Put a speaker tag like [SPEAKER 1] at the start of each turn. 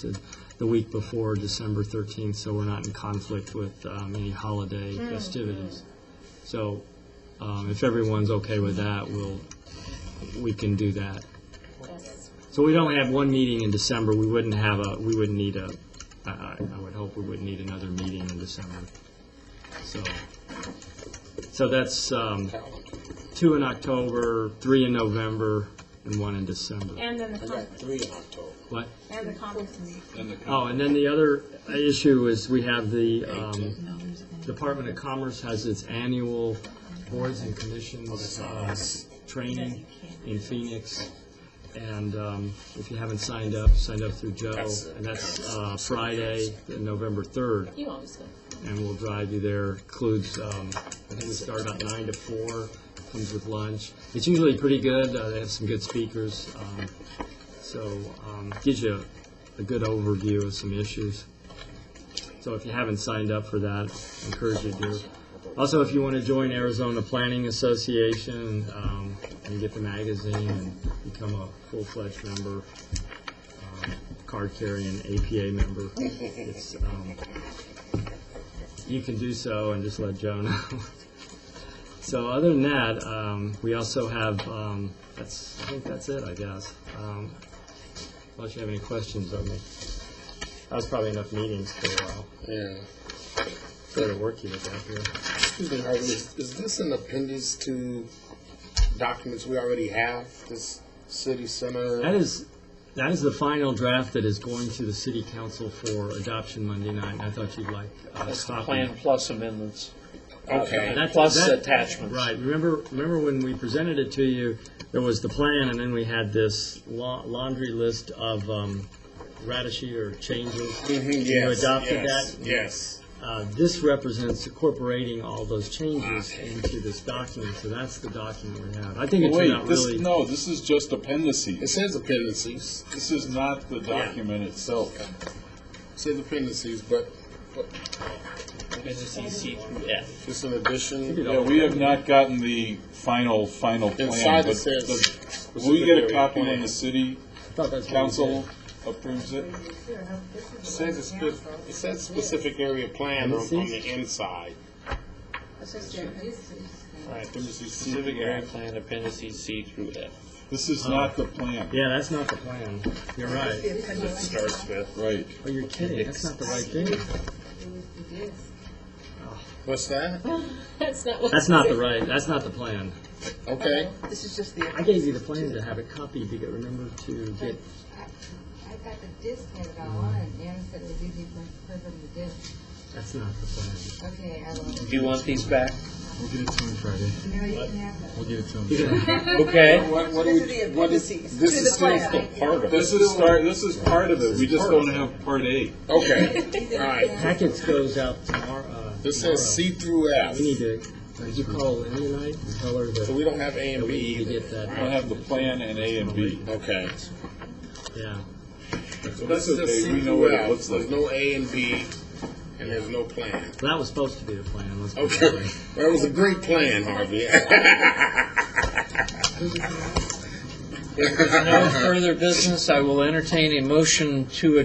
[SPEAKER 1] is the week before December 13th, so we're not in conflict with um, any holiday festivities. So um, if everyone's okay with that, we'll, we can do that. So we'd only have one meeting in December, we wouldn't have a, we wouldn't need a, I- I I would hope we wouldn't need another meeting in December. So, so that's um, two in October, three in November, and one in December.
[SPEAKER 2] And then the,
[SPEAKER 3] I
[SPEAKER 2] con-
[SPEAKER 3] got three in October.
[SPEAKER 1] What?
[SPEAKER 2] and the conference.
[SPEAKER 1] Oh, and then the other issue is we have the, um, Department of Commerce has its annual boards and commissions, uh, training in Phoenix. And, um, if you haven't signed up, sign up through Joe,
[SPEAKER 3] That's-
[SPEAKER 1] and that's, uh, Friday, November third.
[SPEAKER 2] You always go.
[SPEAKER 1] And we'll drive you there, includes, um, I think we start about nine to four, comes with lunch. It's usually pretty good, uh, they have some good speakers, um, so, um, gives you a good overview of some issues. So if you haven't signed up for that, I encourage you to. Also, if you want to join Arizona Planning Association, um, and get the magazine and become a full-fledged member, um, card-carrying APA member, it's, um, you can do so and just let Joe know. So other than that, um, we also have, um, that's, I think that's it, I guess. Um, Unless you have any questions of me. That was probably enough meetings for a while.
[SPEAKER 3] Yeah.
[SPEAKER 1] Better work you with that here.
[SPEAKER 3] Excuse me, Harvey, is, is this an appendix to documents we already have, this city
[SPEAKER 1] That
[SPEAKER 3] center?
[SPEAKER 1] is, that is the final draft that is going to the city council for adoption Monday night. and I thought you'd like uh, a
[SPEAKER 4] That's the
[SPEAKER 1] copy.
[SPEAKER 4] plan plus amendments.
[SPEAKER 3] Okay.
[SPEAKER 1] That's-
[SPEAKER 4] Plus
[SPEAKER 1] that-
[SPEAKER 4] attachments.
[SPEAKER 1] Right, remember, remember when we presented it to you, there was the plan, and then we had this la- laundry list of um, ratashy or changes.
[SPEAKER 3] Mhm,
[SPEAKER 1] You
[SPEAKER 3] yes,
[SPEAKER 1] adopted
[SPEAKER 3] yes,
[SPEAKER 1] that?
[SPEAKER 3] Yes.
[SPEAKER 1] Uh, This represents incorporating all those changes into this document, so that's the document we have. I think it turned
[SPEAKER 5] Wait,
[SPEAKER 1] out
[SPEAKER 5] this,
[SPEAKER 1] really,
[SPEAKER 5] no, this is just
[SPEAKER 3] It
[SPEAKER 5] appendices.
[SPEAKER 3] says appendices,
[SPEAKER 5] This is not the document itself.
[SPEAKER 3] it says appendices, but it's an addition.
[SPEAKER 5] Yeah, we have not gotten the final, final plan.
[SPEAKER 3] Inside
[SPEAKER 5] Oh, but
[SPEAKER 3] it says.
[SPEAKER 5] the-
[SPEAKER 3] this
[SPEAKER 5] Will we
[SPEAKER 3] is
[SPEAKER 5] get
[SPEAKER 3] the
[SPEAKER 5] a copy when
[SPEAKER 3] plan.
[SPEAKER 5] the city
[SPEAKER 1] I thought that's what we
[SPEAKER 5] council approves it?
[SPEAKER 3] It says, a spe- it says specific area plan on, on the inside. Right, appendices, specific area.
[SPEAKER 4] plan appendices C through F.
[SPEAKER 5] This
[SPEAKER 3] Uh,
[SPEAKER 5] is not the plan.
[SPEAKER 1] did. Yeah, that's not the plan. You're right.
[SPEAKER 4] Starts with.
[SPEAKER 5] Right.
[SPEAKER 1] Oh, you're kidding, that's not the right thing.
[SPEAKER 3] What's that?
[SPEAKER 2] That's not what.
[SPEAKER 1] That's not the right, that's not the plan.
[SPEAKER 3] Okay.
[SPEAKER 6] This is just the,
[SPEAKER 1] I gave you the plan to have it copied to get, remember to get
[SPEAKER 7] I got the disc and it all on, and Anna said to give you my, her the disc.
[SPEAKER 1] That's not the plan.
[SPEAKER 7] Okay, I will.
[SPEAKER 4] Do you want these back?
[SPEAKER 7] No, you can have that.
[SPEAKER 4] Okay.
[SPEAKER 3] What, what do
[SPEAKER 6] these are the
[SPEAKER 3] we, what is,
[SPEAKER 6] appendices
[SPEAKER 3] this
[SPEAKER 6] to the
[SPEAKER 3] is still
[SPEAKER 6] plan.
[SPEAKER 3] part of it.
[SPEAKER 5] This is start, this is part of it. We just don't have part A.
[SPEAKER 3] Okay, all right.
[SPEAKER 1] Packets goes out tomorrow. uh,
[SPEAKER 3] This
[SPEAKER 1] tomorrow.
[SPEAKER 3] says C through F,
[SPEAKER 1] We need to, did you call Lynn tonight and tell her
[SPEAKER 3] so
[SPEAKER 1] that
[SPEAKER 3] we don't have A and
[SPEAKER 1] we
[SPEAKER 3] B
[SPEAKER 1] need to
[SPEAKER 3] either.
[SPEAKER 1] get that?
[SPEAKER 5] We don't have the plan and A and B.
[SPEAKER 3] Okay.
[SPEAKER 1] Yeah.
[SPEAKER 3] So
[SPEAKER 5] That's
[SPEAKER 3] this is
[SPEAKER 5] okay,
[SPEAKER 3] C
[SPEAKER 5] we know
[SPEAKER 3] through
[SPEAKER 5] what it
[SPEAKER 3] F.
[SPEAKER 5] looks like.
[SPEAKER 3] There's no A and B, and there's no plan.
[SPEAKER 1] Well, that was supposed to be the plan, let's put it that
[SPEAKER 3] Okay,
[SPEAKER 1] way.
[SPEAKER 3] that was a great plan, Harvey.
[SPEAKER 4] If there's no further business, I will entertain a motion to